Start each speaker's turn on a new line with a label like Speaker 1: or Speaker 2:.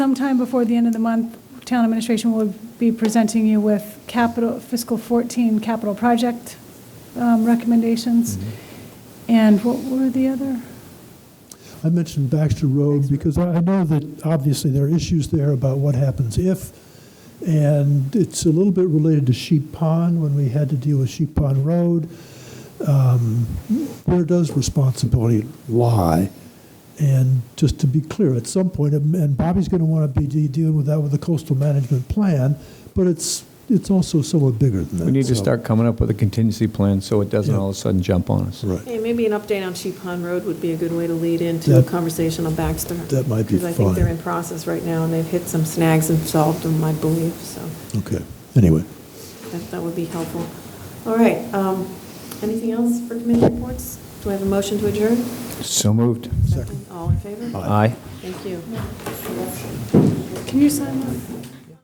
Speaker 1: Sometime before the end of the month, town administration will be presenting you with capital, fiscal 14 capital project um, recommendations. And what were the other?
Speaker 2: I mentioned Baxter Road because I I know that obviously there are issues there about what happens if, and it's a little bit related to Sheep Pond when we had to deal with Sheep Pond Road. Um, Where does responsibility lie? And just to be clear, at some point, and Bobby's going to want to be de- dealing with that with the coastal management plan, but it's, it's also somewhat bigger than that.
Speaker 3: We need to
Speaker 2: so-
Speaker 3: start coming up with a contingency plan so it doesn't all of a sudden jump on us.
Speaker 2: Right.
Speaker 4: Hey, maybe an update on Sheep Pond Road would be a good way to lead into a
Speaker 2: That-
Speaker 4: conversation on Baxter.
Speaker 2: that might be
Speaker 4: Because I think
Speaker 2: fine.
Speaker 4: they're in process right now, and they've hit some snags and solved them, I believe, so
Speaker 2: Okay, anyway.
Speaker 4: that, that would be helpful. All right, um, anything else for committee reports? Do I have a motion to adjourn?
Speaker 3: So moved.
Speaker 4: All in favor?
Speaker 3: Aye.
Speaker 4: Thank you.
Speaker 1: Can you sign that?